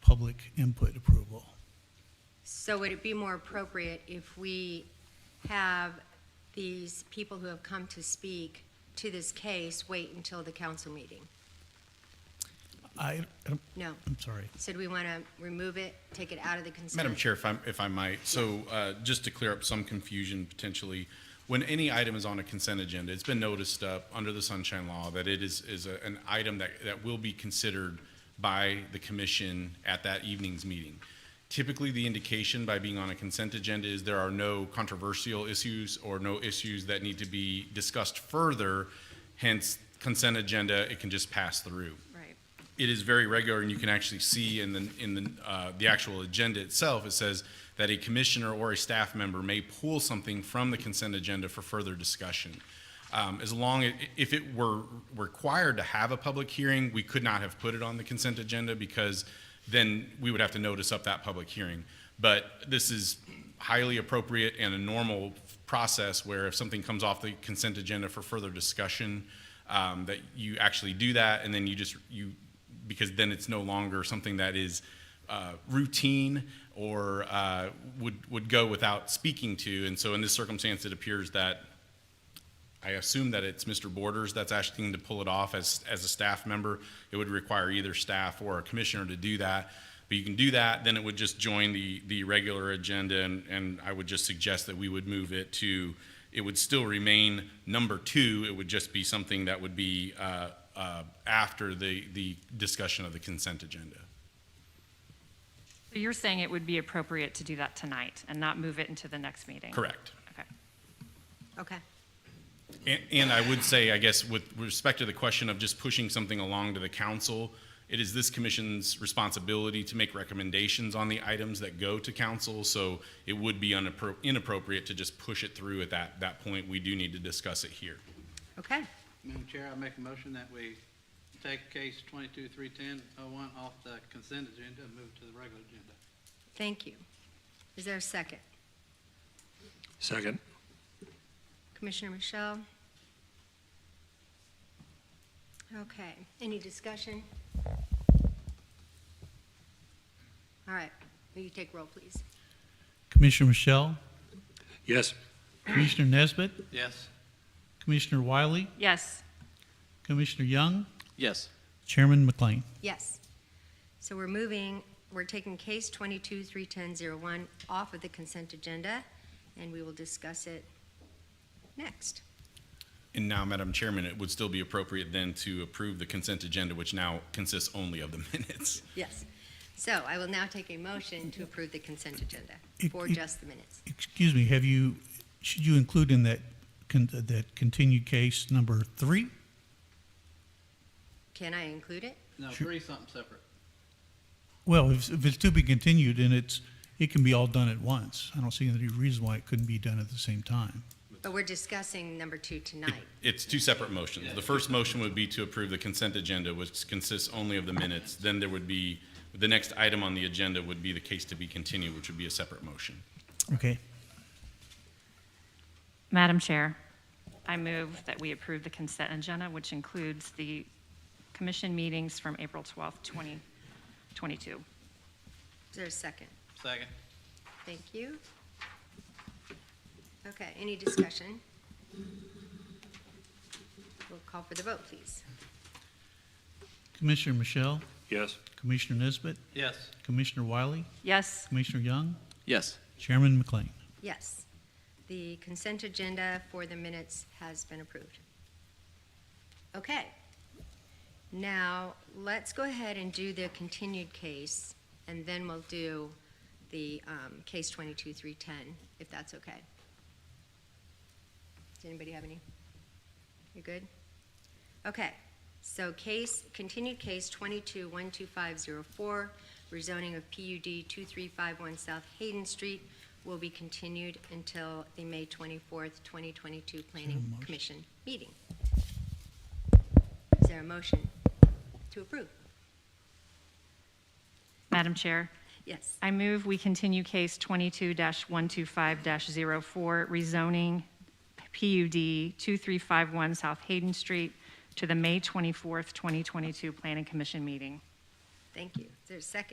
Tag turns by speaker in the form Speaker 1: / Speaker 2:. Speaker 1: public input approval.
Speaker 2: So would it be more appropriate if we have these people who have come to speak to this case wait until the council meeting?
Speaker 1: I, I'm-
Speaker 2: No.
Speaker 1: I'm sorry.
Speaker 2: So do we want to remove it, take it out of the consent?
Speaker 3: Madam Chair, if I, if I might, so uh, just to clear up some confusion potentially, when any item is on a consent agenda, it's been noticed up under the Sunshine Law that it is, is a- an item that, that will be considered by the commission at that evening's meeting. Typically, the indication by being on a consent agenda is there are no controversial issues or no issues that need to be discussed further, hence consent agenda, it can just pass through
Speaker 2: Right.
Speaker 3: it is very regular, and you can actually see in the, in the, uh, the actual agenda itself, it says that a commissioner or a staff member may pull something from the consent agenda for further discussion. Um, as long, as- if it were required to have a public hearing, we could not have put it on the consent agenda because then we would have to notice up that public hearing. But this is highly appropriate and a normal process where if something comes off the consent agenda for further discussion, um, that you actually do that, and then you just, you because then it's no longer something that is uh, routine or uh, would would go without speaking to. And so, in this circumstance, it appears that I assume that it's Mr. Borders that's asking to pull it off as as a staff member. It would require either staff or a commissioner to do that. But you can do that, then it would just join the the regular agenda, and and I would just suggest that we would move it to. It would still remain number two. It would just be something that would be uh, uh, after the, the discussion of the consent agenda.
Speaker 4: So you're saying it would be appropriate to do that tonight and not move it into the next meeting?
Speaker 3: Correct.
Speaker 4: Okay.
Speaker 2: Okay.
Speaker 3: And, and I would say, I guess, with respect to the question of just pushing something along to the council, it is this commission's responsibility to make recommendations on the items that go to council. So it would be unappro- inappropriate to just push it through at that, that point. We do need to discuss it here.
Speaker 2: Okay.
Speaker 5: Madam Chair, I make a motion that we take case twenty-two, three ten oh one off the consent agenda and move it to the regular agenda.
Speaker 2: Thank you. Is there a second?
Speaker 6: Second.
Speaker 2: Commissioner Michelle? Okay. Any discussion? All right. Will you take roll, please?
Speaker 1: Commissioner Michelle,
Speaker 6: Yes.
Speaker 1: Commissioner Nesbitt,
Speaker 5: Yes.
Speaker 1: Commissioner Wiley,
Speaker 4: Yes,
Speaker 1: Commissioner Young,
Speaker 5: Yes.
Speaker 1: Chairman McLean.
Speaker 2: Yes. So we're moving, we're taking case 22-310-01 off of the consent agenda, and we will discuss it next.
Speaker 3: And now, Madam Chairman, it would still be appropriate then to approve the consent agenda, which now consists only of the minutes.
Speaker 2: Yes. So I will now take a motion to approve the consent agenda
Speaker 1: It-
Speaker 2: for
Speaker 1: it-
Speaker 2: just the minutes.
Speaker 1: Excuse me, have you, should you include in that, con- that continued case number three?
Speaker 2: Can I include it?
Speaker 5: No,
Speaker 1: Sure.
Speaker 5: three something separate.
Speaker 1: Well, if, if it's to be continued, and it's, it can be all done at once. I don't see any reason why it couldn't be done at the same time.
Speaker 2: But we're discussing number two tonight.
Speaker 3: It's two separate motions. The first motion would be to approve the consent agenda, which consists only of the minutes. Then there would be, the next item on the agenda would be the case to be continued, which would be a separate motion.
Speaker 1: Okay.
Speaker 4: Madam Chair, I move that we approve the consent agenda, which includes the commission meetings from April 12th, 2022.
Speaker 2: Is there a second?
Speaker 5: Second.
Speaker 2: Thank you. Okay, any discussion? We'll call for the vote, please.
Speaker 1: Commissioner Michelle,
Speaker 6: Yes.
Speaker 1: Commissioner Nesbitt,
Speaker 5: Yes.
Speaker 1: Commissioner Wiley,
Speaker 4: Yes,
Speaker 1: Commissioner Young,
Speaker 7: Yes,
Speaker 1: Chairman McLean.
Speaker 2: Yes. The consent agenda for the minutes has been approved. Okay. Now, let's go ahead and do the continued case, and then we'll do the um, case 22-310, if that's okay. Does anybody have any? You're good? Okay. So case, continued case 22-12504, rezoning of PUD 2351 South Hayden Street will be continued until the May 24th, 2022 Planning Commission meeting. Is there a motion to approve?
Speaker 4: Madam Chair,
Speaker 2: Yes.
Speaker 4: I move we continue case 22-125-04, rezoning PUD 2351 South Hayden Street to the May 24th, 2022 Planning Commission meeting.
Speaker 2: Thank you. Is there a second?